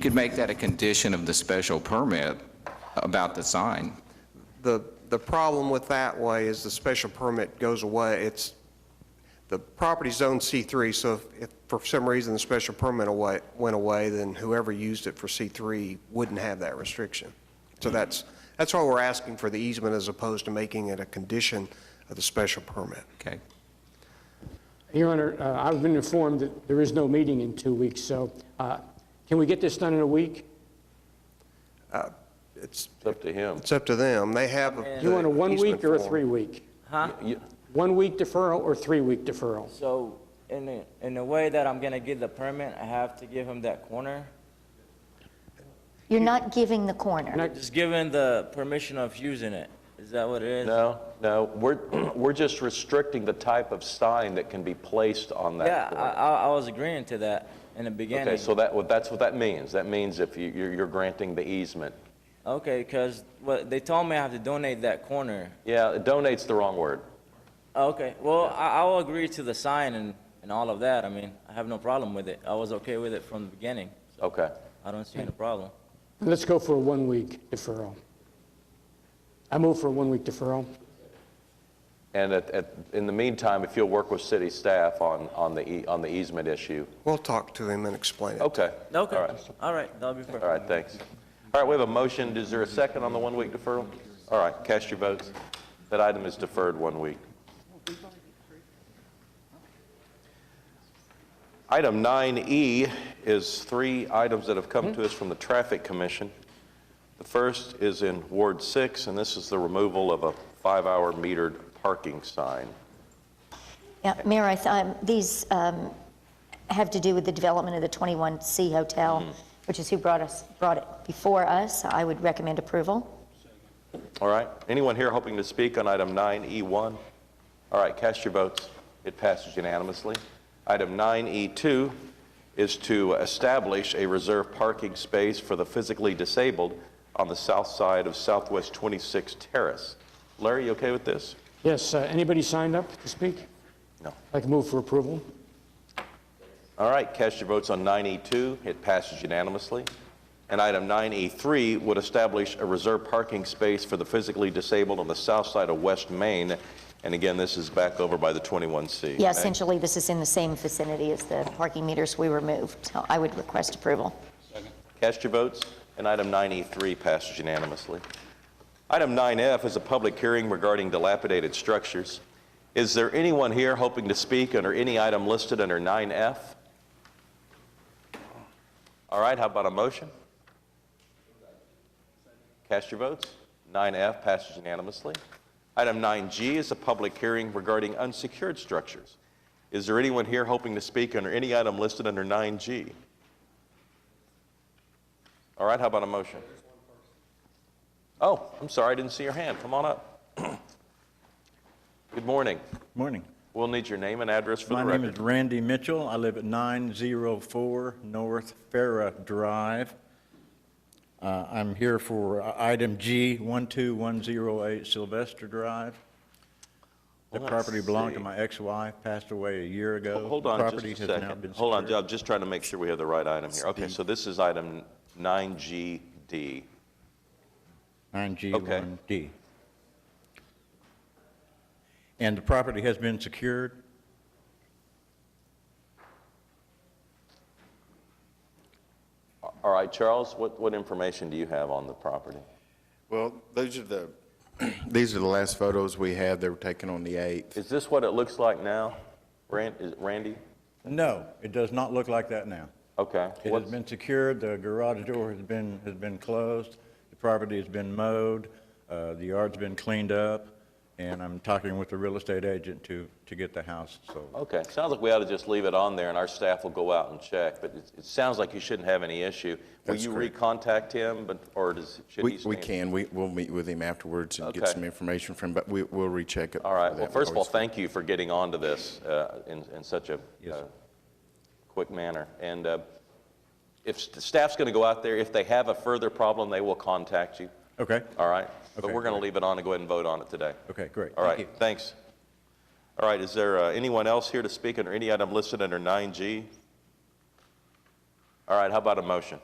could make that a condition of the special permit about the sign. The, the problem with that way is the special permit goes away. It's, the property's zone C3, so if, if for some reason the special permit away, went away, then whoever used it for C3 wouldn't have that restriction. So that's, that's why we're asking for the easement as opposed to making it a condition of the special permit. Okay. Your Honor, uh, I've been informed that there is no meeting in two weeks, so uh, can we get this done in a week? It's, It's up to him. it's up to them. They have. Do you want a one-week or a three-week? You- One-week deferral or three-week deferral? So in the, in the way that I'm gonna get the permit, I have to give him that corner? You're not giving the corner. Just giving the permission of using it, is that what it is? No, no, we're, we're just restricting the type of sign that can be placed on Yeah, that I, board. I I was agreeing to that in the Okay, beginning. so that, what- that's what that means. That means if you, you're you're granting the easement. Okay, cause what, they told me I have to donate that corner. Yeah, donate's the wrong word. Okay, well, I, I will agree to the sign and, and all of that, I mean, I have no problem with it. I was okay with it from the beginning, Okay. I don't see Hmm. any problem. Let's go for a one-week deferral. I move for a one-week deferral. And at, at, in the meantime, if you'll work with city staff on, on the, e- on the easement issue. We'll talk to them and explain it. Okay. Okay, All right, all right, that'll be perfect. all right, thanks. All right, we have a motion. Is there a second on the one-week deferral? All right, cast your votes. That item is deferred one week. Item 9E is three items that have come to us from the Traffic Commission. The first is in Ward 6, and this is the removal of a five-hour metered parking sign. Yeah, Mayor, I th- um, these um, have to do with the development of the 21C Hotel, which is who brought us, brought it before us. I would recommend approval. All right. Anyone here hoping to speak on item 9E1? All right, cast your votes. It passes unanimously. Item 9E2 is to establish a reserved parking space for the physically disabled on the south side of Southwest 26 Terrace. Larry, you okay with this? Yes, uh, anybody signed up to speak? No. I can move for approval. All right, cast your votes on 9E2. It passes unanimously. And item 9E3 would establish a reserved parking space for the physically disabled on the south side of West Main. And again, this is back over by the 21C. Yeah, Meg? essentially, this is in the same vicinity as the parking meters we removed, so I would request approval. Cast your votes, and item 9E3 passes unanimously. Item 9F is a public hearing regarding dilapidated structures. Is there anyone here hoping to speak under any item listed under 9F? All right, how about a motion? Cast your votes. 9F passes unanimously. Item 9G is a public hearing regarding unsecured structures. Is there anyone here hoping to speak under any item listed under 9G? All right, how about a motion? Oh, I'm sorry, I didn't see your hand. Come on up. Good morning. Morning. We'll need your name and address for the My name is record. Randy Mitchell. I live at 904 North Farah Drive. Uh, I'm here for uh, item G, 12108 Sylvester Drive. The Let's property belonged to see. my ex-wife, passed away a year ago. Oh, Hold on Property just a has now second. been Hold on, secured. I'm just trying to make sure we have the right item here. Okay, so this is item 9GD. 9G1D. And the property has been secured. All right, Charles, what, what information do you have on the property? Well, those are the, these are the last photos we have. They were taken on the 8th. Is this what it looks like now? Ran- is it Randy? No, it does not look like that now. Okay. It has What's- been secured, the garage door has been, has been closed, the property has been mowed, uh, the yard's been cleaned up, and I'm talking with the real estate agent to, to get the house sold. Okay, sounds like we ought to just leave it on there, and our staff will go out and check, but it, it sounds like you shouldn't have any issue. Will That's you correct. recontact him, but, or does, should he We, stand? we can, we, we'll meet with him afterwards and get Okay. some information from him, but we, we'll recheck it. All right, before well, that. We first of all, always- thank you for getting onto this uh, in, in such a Yes, uh, sir. quick manner. And uh, if s- the staff's going to go out there, if they have a further problem, they will contact you, Okay, all right? But Okay, we're going to great. leave it on and go ahead and vote on it today. okay, great, All thank you. right, thanks. All right, is there uh, anyone else here to speak under any item listed under 9G? All right, how about a motion?